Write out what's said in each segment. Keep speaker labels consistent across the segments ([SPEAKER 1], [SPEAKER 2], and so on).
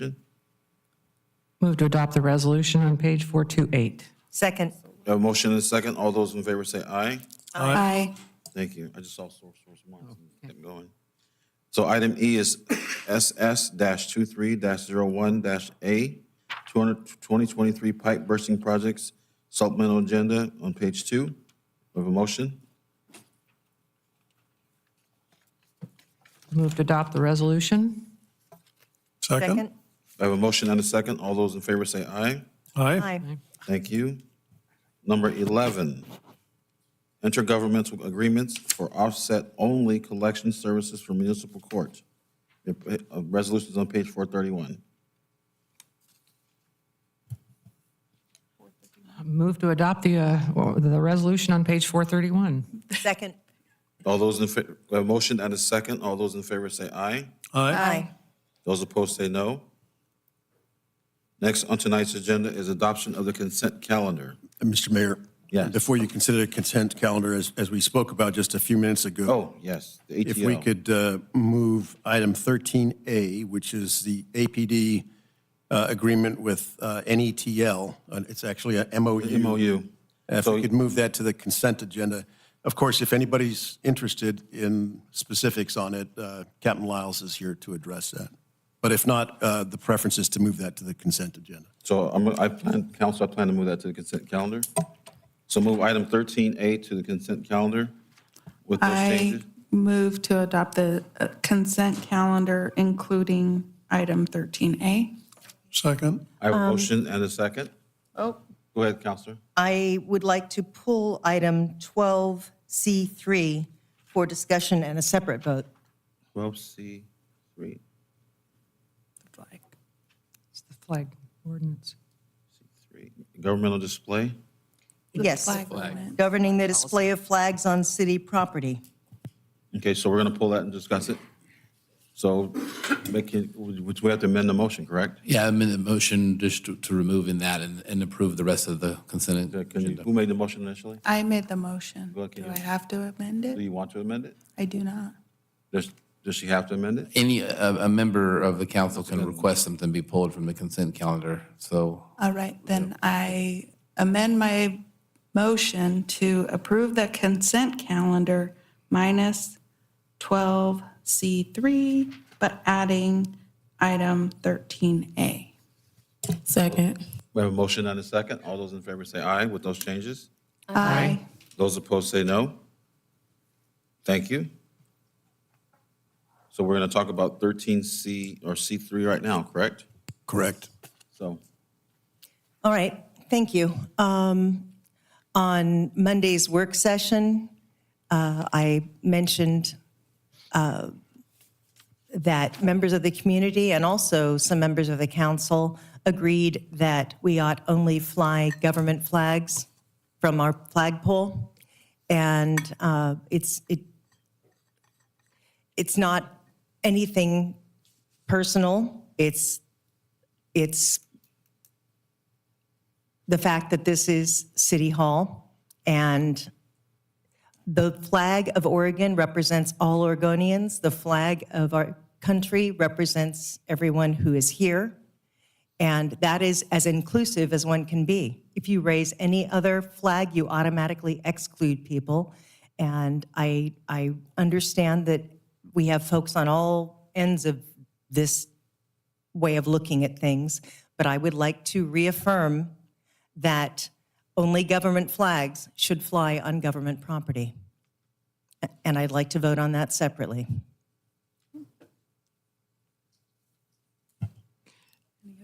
[SPEAKER 1] Good.
[SPEAKER 2] Move to adopt the resolution on page 428.
[SPEAKER 3] Second.
[SPEAKER 1] We have a motion and a second. All those in favor say aye.
[SPEAKER 3] Aye.
[SPEAKER 1] Thank you. I just saw source, source marks and kept going. So item E is SS dash two three dash zero one dash A, 2023 pipe bursting projects supplemental agenda on page two. We have a motion.
[SPEAKER 2] Move to adopt the resolution.
[SPEAKER 3] Second.
[SPEAKER 1] I have a motion and a second. All those in favor say aye.
[SPEAKER 4] Aye.
[SPEAKER 3] Aye.
[SPEAKER 1] Thank you. Number 11, intergovernmental agreements for offset-only collection services for municipal court. Your, uh, Resolutions on page 431.
[SPEAKER 2] Move to adopt the, uh, or the resolution on page 431.
[SPEAKER 3] Second.
[SPEAKER 1] All those in, fa- we have a motion and a second. All those in favor say aye.
[SPEAKER 4] Aye.
[SPEAKER 3] Aye.
[SPEAKER 1] Those opposed say no. Next on tonight's agenda is adoption of the consent calendar.
[SPEAKER 4] Mr. Mayor?
[SPEAKER 1] Yes.
[SPEAKER 4] Before you consider the consent calendar, as, as we spoke about just a few minutes
[SPEAKER 1] Oh,
[SPEAKER 4] ago,
[SPEAKER 1] yes, the ATL.
[SPEAKER 4] if we could uh, move item 13A, which is the APD uh, agreement with uh, NETL, uh, it's actually a MOU.
[SPEAKER 1] MOU.
[SPEAKER 4] Uh, If we could move that to the consent agenda. Of course, if anybody's interested in specifics on it, uh, Captain Lyles is here to address that. But if not, uh, the preference is to move that to the consent agenda.
[SPEAKER 1] So I'm, I plan, council, I plan to move that to the consent calendar. So move item 13A to the consent calendar with those
[SPEAKER 5] I
[SPEAKER 1] changes.
[SPEAKER 5] move to adopt the uh, consent calendar, including item 13A.
[SPEAKER 6] Second.
[SPEAKER 1] I have a motion and a second.
[SPEAKER 3] Oh,
[SPEAKER 1] Go ahead, Counselor.
[SPEAKER 3] I would like to pull item 12C3 for discussion and a separate vote.
[SPEAKER 1] 12C3. C3.
[SPEAKER 2] It's the flag ordinance.
[SPEAKER 1] Governmental display.
[SPEAKER 3] Yes,
[SPEAKER 5] ordinance.
[SPEAKER 3] governing the display of flags on city property.
[SPEAKER 1] Okay, so we're going to pull that and discuss it. So make it, which we have to amend the motion, correct?
[SPEAKER 7] Yeah, I'm in the motion just to, to remove in that and, and approve the rest of the consent
[SPEAKER 1] Can you,
[SPEAKER 7] agenda.
[SPEAKER 1] who made the motion initially?
[SPEAKER 5] I made the motion.
[SPEAKER 1] Well, can
[SPEAKER 5] Do
[SPEAKER 1] you-
[SPEAKER 5] I have to amend
[SPEAKER 1] Do
[SPEAKER 5] it?
[SPEAKER 1] you want to amend it?
[SPEAKER 5] I do not.
[SPEAKER 1] Does, does she have to amend it?
[SPEAKER 7] Any, a, a member of the council can request something be pulled from the consent calendar, so.
[SPEAKER 5] All right, then I amend my motion to approve the consent calendar minus 12C3, but adding item 13A.
[SPEAKER 8] Second.
[SPEAKER 1] We have a motion and a second. All those in favor say aye with those changes.
[SPEAKER 5] Aye.
[SPEAKER 1] Those opposed say no. Thank you. So we're going to talk about 13C or C3 right now, correct?
[SPEAKER 4] Correct.
[SPEAKER 1] So,
[SPEAKER 3] All right, thank you. Um, On Monday's work session, uh, I mentioned uh, that members of the community and also some members of the council agreed that we ought only fly government flags from our flagpole. And uh, it's, it, it's not anything personal. It's, it's the fact that this is City Hall and the flag of Oregon represents all Oregonians. The flag of our country represents everyone who is here. And that is as inclusive as one can be. If you raise any other flag, you automatically exclude people. And I, I understand that we have folks on all ends of this way of looking at things, but I would like to reaffirm that only government flags should fly on government property. A- And I'd like to vote on that separately.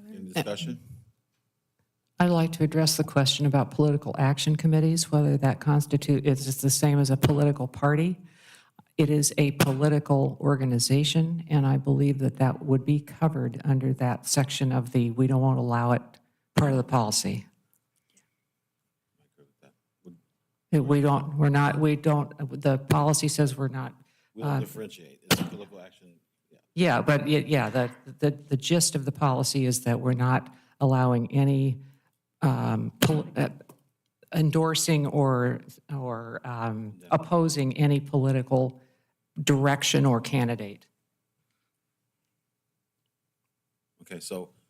[SPEAKER 1] any discussion?
[SPEAKER 2] I'd like to address the question about political action committees, whether that constitute, is just the same as a political party. It is a political organization, and I believe that that would be covered under that section of the, we don't want to allow it part of the policy. That We don't, we're not, we don't, the policy says we're not
[SPEAKER 1] We don't differentiate. It's political action.
[SPEAKER 2] yeah, but y- yeah, the, the, the gist of the policy is that we're not allowing any um, pol- uh, endorsing or, or um, opposing any political direction or candidate.
[SPEAKER 1] Okay, so